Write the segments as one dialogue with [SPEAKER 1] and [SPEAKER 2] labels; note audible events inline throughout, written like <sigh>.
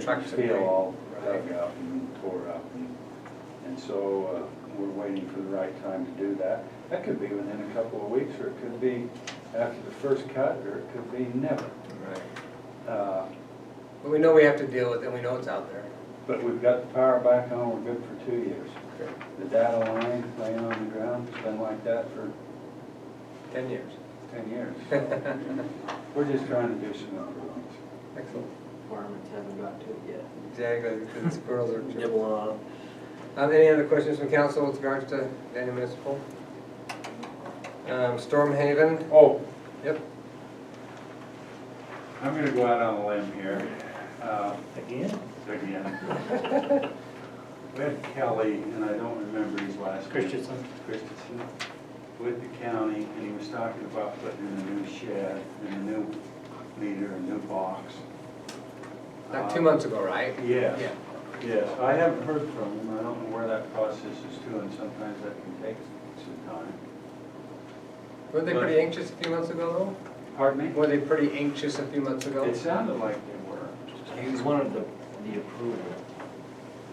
[SPEAKER 1] Trucks
[SPEAKER 2] Trucks
[SPEAKER 1] feel
[SPEAKER 2] are-
[SPEAKER 1] all
[SPEAKER 2] right.
[SPEAKER 1] dug out and tore up. and- And so uh, we're waiting for the right time to do that. That could be within a couple of weeks, or it could be after the first cut, or it could be never.
[SPEAKER 2] Right.
[SPEAKER 1] Uh,
[SPEAKER 2] But we know we have to deal with it, we know it's out there.
[SPEAKER 1] But we've got the power back on, we're good for two years. The data line laying on the ground, it's been like that for
[SPEAKER 2] Ten years.
[SPEAKER 1] ten years. We're just trying to do some improvements.
[SPEAKER 2] Excellent.
[SPEAKER 3] Requirements haven't got to it yet.
[SPEAKER 2] Exactly, because the squirrels
[SPEAKER 3] <laughs>
[SPEAKER 2] are.
[SPEAKER 3] Nibble on them.
[SPEAKER 2] Um, Any other questions from council with regards to Daniel Municipal? Um, Storm Haven,
[SPEAKER 1] Oh,
[SPEAKER 2] yep,
[SPEAKER 1] I'm gonna go out on a limb here. Uh,
[SPEAKER 4] Again? <laughs>
[SPEAKER 1] again. With Kelly, and I don't remember his last name.
[SPEAKER 4] Christensen.
[SPEAKER 1] Christensen, with the county, and he was talking about putting in a new shed and a new meter, a new box.
[SPEAKER 2] like two months ago, right?
[SPEAKER 1] Uh, Yes.
[SPEAKER 2] Yeah.
[SPEAKER 1] Yes, I haven't heard from him, I don't know where that process is to, and sometimes that can take some time.
[SPEAKER 2] Were they pretty anxious a few months ago
[SPEAKER 1] Pardon
[SPEAKER 2] though?
[SPEAKER 1] me?
[SPEAKER 2] Were they pretty anxious a few months ago?
[SPEAKER 1] It sounded like they were.
[SPEAKER 3] uh, He was one of the, the approval,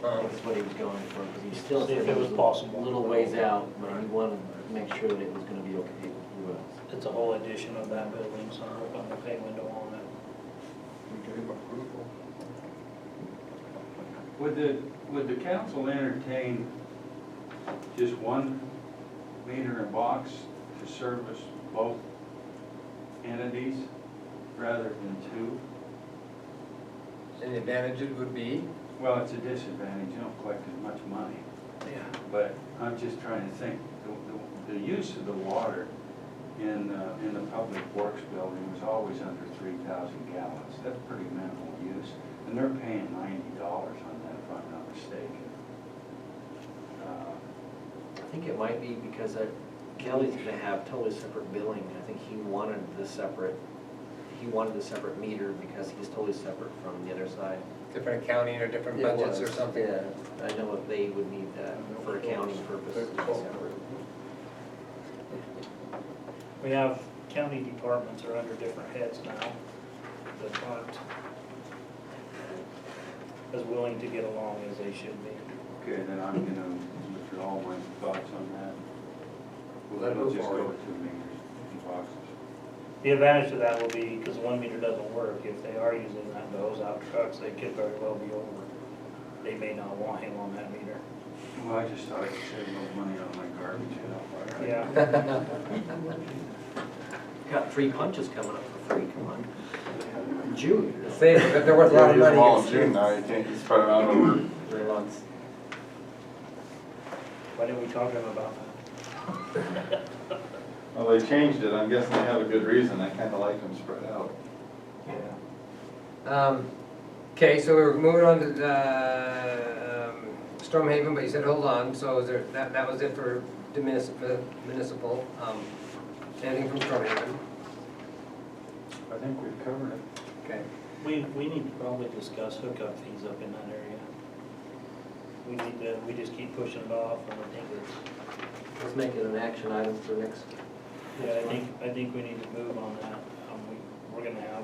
[SPEAKER 2] Um,
[SPEAKER 3] that's what he was going for, because he still
[SPEAKER 4] See
[SPEAKER 3] said
[SPEAKER 4] if
[SPEAKER 3] it
[SPEAKER 4] it was
[SPEAKER 3] was a
[SPEAKER 4] possible.
[SPEAKER 3] little ways out, but he wanted to make sure that it was gonna be okay with us.
[SPEAKER 4] It's a whole addition of that building, so I'm hoping the pay window on it.
[SPEAKER 1] Would the, would the council entertain just one meter and box to service both entities rather than two?
[SPEAKER 2] And the advantages would be?
[SPEAKER 1] Well, it's a disadvantage, you don't collect as much money,
[SPEAKER 2] Yeah.
[SPEAKER 1] but I'm just trying to think, the, the, the use of the water in, uh, in the public works building was always under three thousand gallons, that's pretty minimal use, and they're paying ninety dollars on that, if I'm not mistaken. Uh,
[SPEAKER 3] I think it might be because I- Kelly's gonna have totally separate billing, I think he wanted the separate, he wanted the separate meter because he's totally separate from the other side.
[SPEAKER 2] Different accounting or different
[SPEAKER 3] It
[SPEAKER 2] budgets or
[SPEAKER 3] was,
[SPEAKER 2] something?
[SPEAKER 3] Yeah, I know if they would need that for accounting purposes. to be separate.
[SPEAKER 4] We have county departments are under different heads now that aren't as willing to get along as they should be.
[SPEAKER 1] Okay, then I'm gonna withdraw my thoughts on that.
[SPEAKER 2] Let it
[SPEAKER 1] We'll
[SPEAKER 2] move
[SPEAKER 1] just go
[SPEAKER 2] forward.
[SPEAKER 1] with two meters and boxes.
[SPEAKER 4] The advantage of that will be, because one meter doesn't work, if they are using that to hose out trucks, they could very well be over. They may not want him on that meter.
[SPEAKER 1] Well, I just thought I could save a little money on my garbage, you know. right?
[SPEAKER 4] Yeah.
[SPEAKER 3] Got three punches coming up for free, come on. June.
[SPEAKER 2] Save, it, they're worth a lot of money.
[SPEAKER 5] Volunteer now, you can't, you spread it out over
[SPEAKER 3] Three months.
[SPEAKER 4] Why didn't we talk to him about
[SPEAKER 5] <laughs> Well, they changed it, I'm guessing they have a good reason, I kinda like them spread out.
[SPEAKER 4] that? Yeah.
[SPEAKER 2] Um, Okay, so we're moving on to the um, Storm Haven, but you said hold on, so is there, that, that was it for the municipal, municipal, um, anything from Storm Haven?
[SPEAKER 1] I think we've covered it.
[SPEAKER 2] Okay.
[SPEAKER 4] We, we need to probably discuss hookup fees up in that area. We need to, we just keep pushing it off, and I think it's,
[SPEAKER 3] Let's make it an action item for next.
[SPEAKER 4] yeah, I think, I think we need to move on that. Um, we, we're gonna have,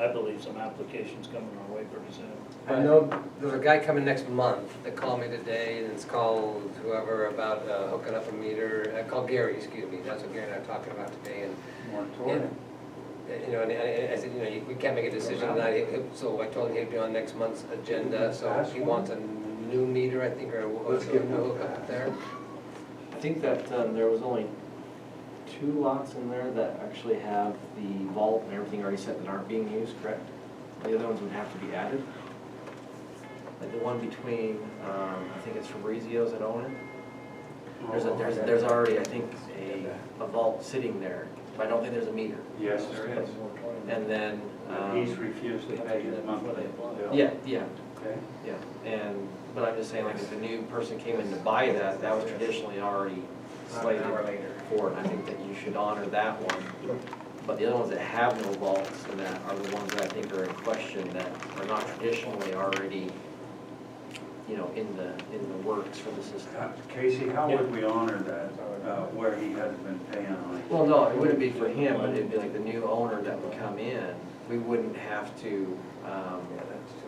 [SPEAKER 4] I believe, some applications coming our way pretty soon.
[SPEAKER 2] I know there's a guy coming next month that called me today, and it's called whoever about uh, hooking up a meter, I called Gary, excuse me, that's what Gary and I were talking about today, and uh,
[SPEAKER 1] Moratorium.
[SPEAKER 2] You know, and I I said, you know, you- we can't make a decision tonight, He- he- so I told him he'd be on next month's agenda, so he wants a new meter, I think, or a
[SPEAKER 1] Let's give him a
[SPEAKER 2] hookup up
[SPEAKER 1] pass.
[SPEAKER 2] there.
[SPEAKER 3] I think that um, there was only two lots in there that actually have the vault and everything already set that aren't being used, correct? The other ones would have to be added. Like the one between, um, I think it's Fabrizio's that own it. There's, a- there's, there's already, I think, a, a vault sitting there, but I don't think there's a meter.
[SPEAKER 1] Yes, there
[SPEAKER 3] Um,
[SPEAKER 1] is.
[SPEAKER 3] And then,
[SPEAKER 1] But He's
[SPEAKER 3] um,
[SPEAKER 1] refused to pay his monthly bill.
[SPEAKER 3] yeah, yeah,
[SPEAKER 1] Okay.
[SPEAKER 3] Yeah, and, but I'm just saying, like, if a new person came in to buy that, that was traditionally already slated for it. I think that you should honor that one. But the other ones that have no vaults and that are the ones that I think are in question that are not traditionally already, you know, in the, in the works for the
[SPEAKER 1] Uh,
[SPEAKER 3] system.
[SPEAKER 1] Casey, how would we honor that, uh, where he hasn't been paying on it?
[SPEAKER 3] Well, no, it wouldn't be for him, but it'd be like the new owner that would come in. We wouldn't have to, um,